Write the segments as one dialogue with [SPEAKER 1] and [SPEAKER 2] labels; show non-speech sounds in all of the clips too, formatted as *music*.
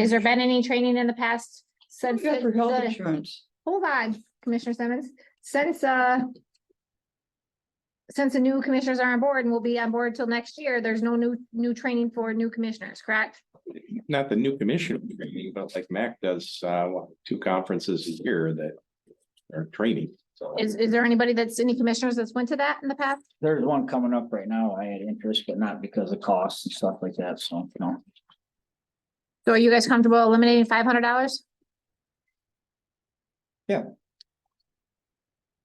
[SPEAKER 1] Has there been any training in the past since,
[SPEAKER 2] Yeah, for health
[SPEAKER 1] the-
[SPEAKER 2] insurance.
[SPEAKER 1] hold on, Commissioner Simmons, since, uh, since the new commissioners are on board and will be on board till next year, there's no new, new training for new commissioners, correct?
[SPEAKER 3] not the new commissioner training, but like Mac does, uh, what, two conferences a year that are training, so.
[SPEAKER 1] Is, is there anybody that's, any commissioners that's went to that in the past?
[SPEAKER 4] There's one coming up right now. I had interest, but not because of costs and stuff like that, so, you know.
[SPEAKER 1] So are you guys comfortable eliminating five hundred dollars?
[SPEAKER 3] Yeah.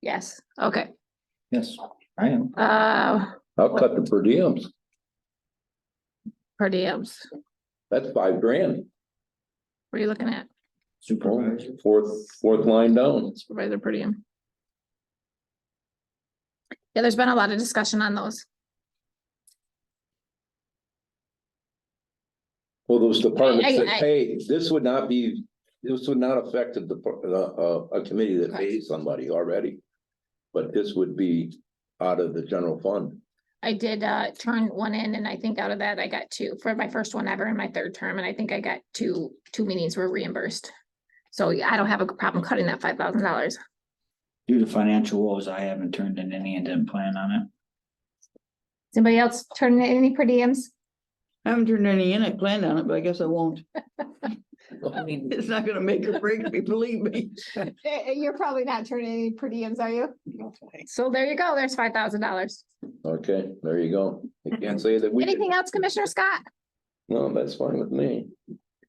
[SPEAKER 1] Yes, okay,
[SPEAKER 4] Yes, I am.
[SPEAKER 1] uh,
[SPEAKER 5] I'll cut the per diems.
[SPEAKER 1] per diems,
[SPEAKER 5] That's five grand.
[SPEAKER 1] what are you looking at,
[SPEAKER 4] Supervisor.
[SPEAKER 5] Fourth, fourth line down.
[SPEAKER 1] supervisor per diem? Yeah, there's been a lot of discussion on those.
[SPEAKER 5] Well, those departments
[SPEAKER 1] I- I-
[SPEAKER 5] that pay, this would not be, this would not affect a, depar- uh, uh, a committee that pays somebody already. But this would be out of the general fund.
[SPEAKER 1] I did uh turn one in and I think out of that I got two for my first one ever in my third term and I think I got two, two meetings were reimbursed. So yeah, I don't have a problem cutting that five thousand dollars.
[SPEAKER 4] Due to financial woes, I haven't turned in any and didn't plan on it.
[SPEAKER 1] Is Anybody else turning in any per diems?
[SPEAKER 2] I haven't turned any in, I planned on it, but I guess I won't.
[SPEAKER 4] I mean,
[SPEAKER 2] It's not gonna make or break me, believe me.
[SPEAKER 1] Eh, You're probably not turning any per diems, are you? So there you go, there's five thousand dollars.
[SPEAKER 5] Okay, there you go. You can't say that we. didn't-
[SPEAKER 1] Mm-hmm. Anything else, Commissioner Scott?
[SPEAKER 5] No, that's fine with me.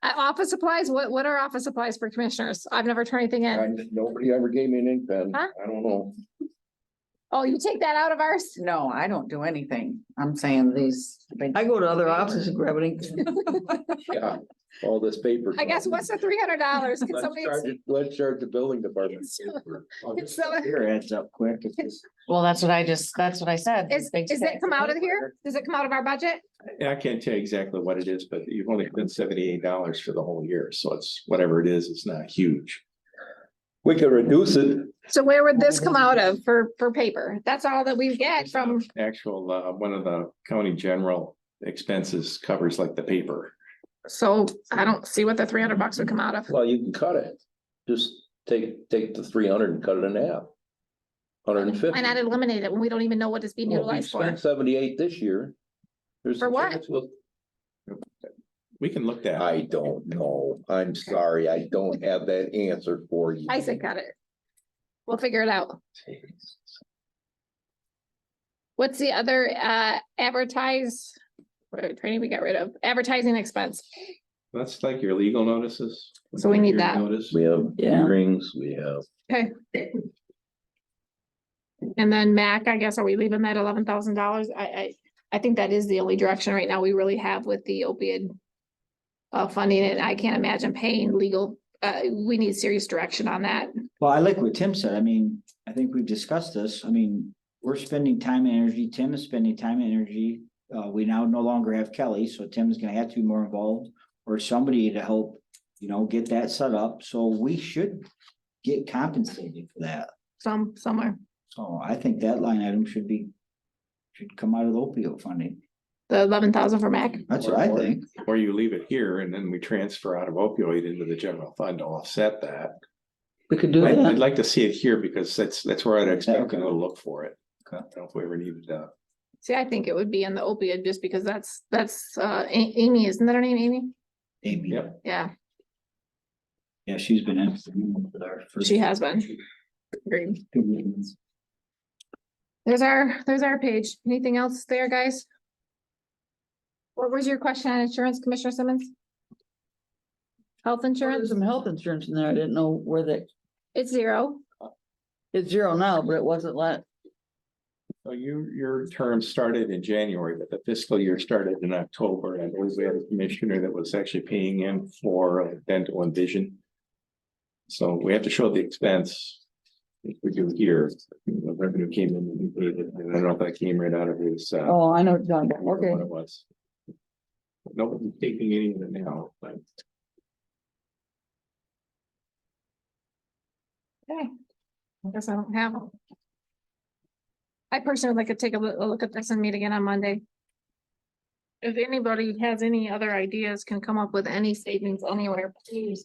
[SPEAKER 1] Uh, office supplies, what what are office supplies for commissioners? I've never turned anything in.
[SPEAKER 5] I, nobody ever gave me an ink pen.
[SPEAKER 1] Huh?
[SPEAKER 5] I don't know.
[SPEAKER 1] Oh, you take that out of ours?
[SPEAKER 6] No, I don't do anything. I'm saying these. big-
[SPEAKER 2] I go to other offices and grab an ink.
[SPEAKER 1] *laughs*
[SPEAKER 5] Yeah, all this paper.
[SPEAKER 1] I guess what's the three hundred dollars? Can
[SPEAKER 5] Let's
[SPEAKER 1] somebody?
[SPEAKER 5] charge, it- let's charge the building department.
[SPEAKER 1] can someone-
[SPEAKER 4] Your heads up quick. It's just-
[SPEAKER 6] Well, that's what I just, that's what I said.
[SPEAKER 1] Is,
[SPEAKER 6] Big
[SPEAKER 1] is
[SPEAKER 6] check.
[SPEAKER 1] that come out of here? Does it come out of our budget?
[SPEAKER 3] I can't tell you exactly what it is, but you've only been seventy-eight dollars for the whole year, so it's whatever it is, it's not huge.
[SPEAKER 5] We could reduce it.
[SPEAKER 1] So where would this come out of for, for paper? That's all that we get
[SPEAKER 3] It's
[SPEAKER 1] from,
[SPEAKER 3] not Actual, uh, one of the county general expenses covers like the paper.
[SPEAKER 1] so I don't see what the three hundred bucks would come out of.
[SPEAKER 5] Well, you can cut it. Just take, take the three hundred and cut it in half. Hundred and fifty.
[SPEAKER 1] Why not eliminate it when we don't even know what it's being
[SPEAKER 5] Well, We
[SPEAKER 1] utilized for?
[SPEAKER 5] spent seventy-eight this year. There's
[SPEAKER 1] For
[SPEAKER 5] a
[SPEAKER 1] what?
[SPEAKER 5] chance we'll-
[SPEAKER 3] We can look that.
[SPEAKER 5] I don't know. I'm sorry. I don't have that answer for you.
[SPEAKER 1] Isaac uh, got it. We'll figure it out. What's the other, uh, advertise? What training we got rid of? Advertising expense.
[SPEAKER 3] That's like your legal notices.
[SPEAKER 1] So we need
[SPEAKER 3] Your
[SPEAKER 1] that.
[SPEAKER 3] Notice.
[SPEAKER 5] We have
[SPEAKER 4] Yeah.
[SPEAKER 5] hearings, we have,
[SPEAKER 1] And then Mac, I guess, are we leaving that eleven thousand dollars? I, I, I think that is the only direction right now we really have with the opioid. Uh, funding and I can't imagine paying legal, uh, we need serious direction on that.
[SPEAKER 4] Well, I like what Tim said. I mean, I think we've discussed this. I mean, we're spending time and energy. Tim is spending time and energy. Uh, we now no longer have Kelly, so Tim's gonna have to be more involved or somebody to help, you know, get that set up. So we should get compensated for that.
[SPEAKER 1] Some, somewhere,
[SPEAKER 4] So I think that line item should be, should come out of the opioid funding.
[SPEAKER 1] the eleven thousand for Mac.
[SPEAKER 4] That's what I think.
[SPEAKER 3] Or you leave it here and then we transfer out of opioid into the general fund to offset that.
[SPEAKER 2] We could do
[SPEAKER 3] I'd, I'd
[SPEAKER 2] that.
[SPEAKER 3] like to see it here because that's, that's where I'd expect to
[SPEAKER 4] Okay.
[SPEAKER 3] go look for it. I
[SPEAKER 4] Okay.
[SPEAKER 3] don't know if we ever needed that.
[SPEAKER 1] See, I think it would be in the opioid just because that's, that's, uh, A- Amy, isn't that her name, Amy?
[SPEAKER 4] Amy,
[SPEAKER 3] Yep.
[SPEAKER 1] Yeah,
[SPEAKER 4] yeah, she's been in with our first.
[SPEAKER 1] she has been. Agreed.
[SPEAKER 4] two meetings.
[SPEAKER 1] There's our, there's our page. Anything else there, guys? What was your question on insurance, Commissioner Simmons? Health
[SPEAKER 2] There's
[SPEAKER 1] insurance,
[SPEAKER 2] some health insurance in there. I didn't know where that,
[SPEAKER 1] it's zero.
[SPEAKER 2] it's zero now, but it wasn't last.
[SPEAKER 3] So you, your term started in January, but the fiscal year started in October. And I believe we had a commissioner that was actually paying in for dental and vision. So we have to show the expense. If we do here, the revenue came in, and I don't know if that came right out of his, uh,
[SPEAKER 2] Oh, I know, what you're talking about.
[SPEAKER 3] what
[SPEAKER 2] okay.
[SPEAKER 3] it was. Nobody's taking any of it now, but.
[SPEAKER 1] I guess I don't have them. I personally would like to take a loo- a look at this and meet again on Monday. if anybody has any other ideas, can come up with any savings anywhere, please